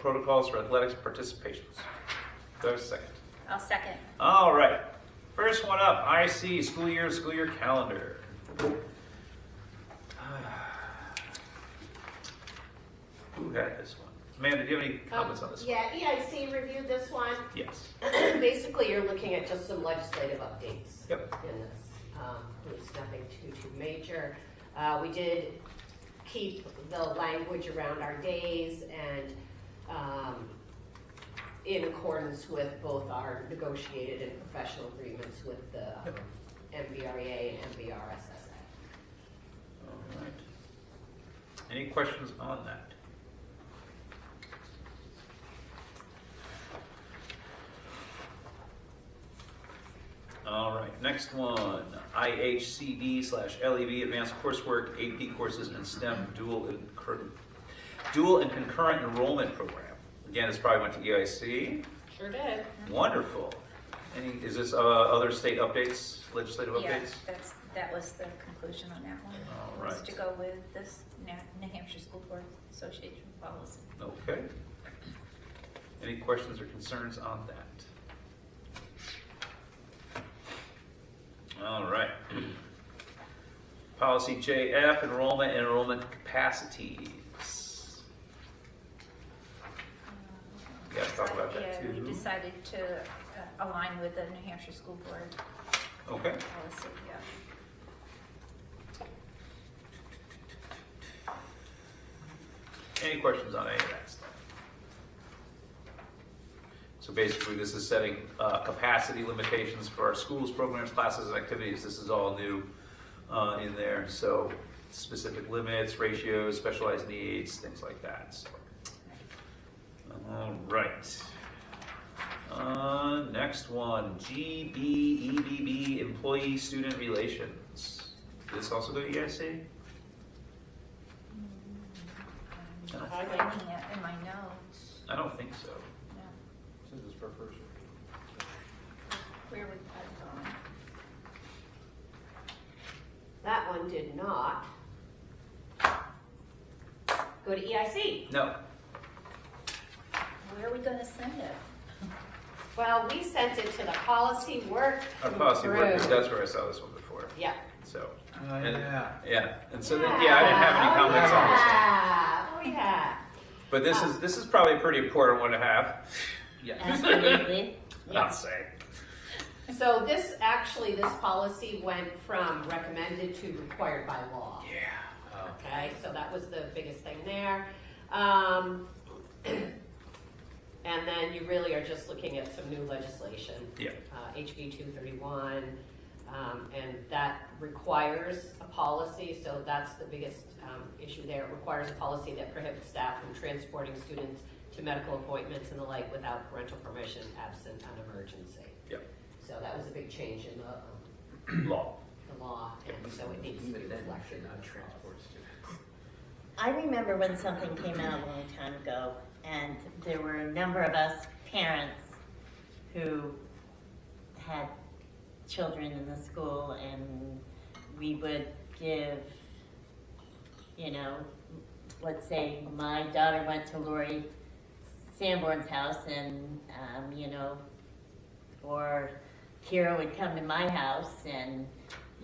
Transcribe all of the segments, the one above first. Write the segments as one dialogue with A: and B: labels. A: protocols for athletics participations. Do I have a second?
B: I'll second.
A: All right. First one up, IC school year, school year calendar. Who had this one? Amanda, do you have any comments on this one?
C: Yeah, E EIC reviewed this one.
A: Yes.
C: Basically, you're looking at just some legislative updates.
A: Yep.
C: In this, um, it's nothing too, too major. Uh, we did keep the language around our days and, um, in accordance with both our negotiated and professional agreements with the um, MVREA and MVRSSA.
A: All right. Any questions on that? All right, next one, IHCD slash LEB, Advanced Coursework, AP Courses in STEM Dual and Cur- Dual and Concurrent Enrollment Program. Again, this probably went to EIC.
C: Sure did.
A: Wonderful. Any, is this uh, other state updates, legislative
B: Yeah,
A: updates?
B: that's, that was the conclusion on that one.
A: All
B: Was
A: right.
B: to go with this Na- New Hampshire School Board Association policy.
A: Okay. Any questions or concerns on that? All right. Policy JF, enrollment and enrollment capacities. You guys talk about that
B: Yeah, we
A: too.
B: decided to uh, align with the New Hampshire School Board
A: Okay,
B: policy, yeah.
A: any questions on any of that stuff? So basically, this is setting uh, capacity limitations for our schools, programs, classes, and activities. This is all new uh, in there, so specific limits, ratios, specialized needs, things like that. So, All right. Uh, Next one, E GBEBB, employee-student relations. Did this also E go to EIC?
B: Um, I'm
A: Uh,
B: finding it in my notes.
A: I don't think so.
B: No.
D: This is for first.
B: Where would that go?
C: That one did not go to E EIC.
A: No,
B: Where are we gonna send it?
C: Well, we sent it to the policy work.
A: our policy workers,
C: group.
A: that's where I saw this one before,
C: Yeah.
A: so.
D: Oh,
A: And-
D: yeah.
A: Yeah, and so then, yeah, I didn't have any comments on this. one.
C: on this. Oh, yeah.
A: But this is, this is probably a pretty important one to have,
C: Absolutely.
A: I'd say.
C: Oh, So this, actually, this policy went from recommended to required by law.
A: Yeah.
C: Okay, so that was the biggest thing there. Um, and then you really are just looking at some new legislation.
A: Yeah.
C: Uh, HB two thirty-one, um, and that requires a policy, so that's the biggest, um, issue there. It requires a policy that prohibits staff from transporting students to medical appointments and the like without parental permission absent an emergency.
A: Yeah.
C: So that was a big change in the, um,
A: Law.
C: the law, and so it needs to be reflected on transport.
E: I remember when something came out a long time ago, and there were a number of us parents who had children in the school, and we would give, you know, let's say my daughter went to Lori Sanborn's house, and, um, you know, or Kira would come to my house, and,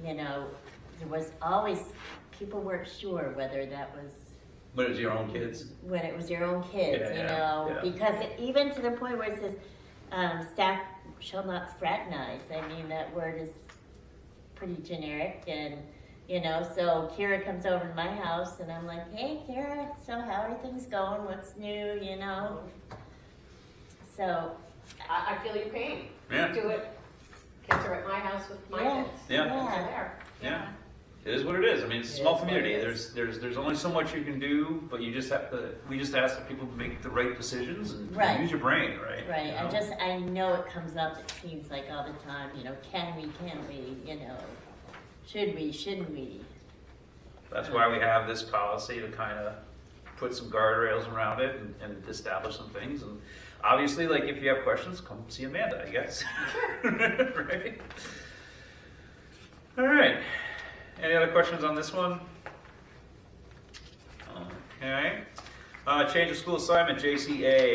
E: you know, there was always, people weren't sure whether that was
A: But it's your own kids?
E: when it was your own kids,
A: Yeah,
E: you
A: yeah,
E: know,
A: yeah.
E: because it, even to the point where it says, um, staff shall not fraternize. I mean, that word is pretty generic and, you know, so Kira comes over to my house and I'm like, hey, Kira, so how are things going? What's new, you know? So,
C: I, I feel your pain.
A: Yeah.
C: Do it. Kids are at my house with my
E: Yeah.
C: kids.
A: Yeah.
C: Kids are there.
A: Yeah. It is what it is. I mean, it's a
C: It
A: small
C: is what it
A: community.
C: is.
A: There's, there's, there's only so much you can do, but you just have to, we just ask that people make the right decisions and
E: Right.
A: use your brain, right?
E: right,
A: You
E: I
A: know?
E: just, I know it comes up, it seems like all the time, you know, can we, can we, you know, should we, shouldn't we?
A: That's why we have this policy to kind of put some guardrails around it and, and establish some things. And obviously, like if you have questions, come see Amanda, I guess. right? All right. Any other questions on this one? Okay. Uh, change of school assignment, JCA,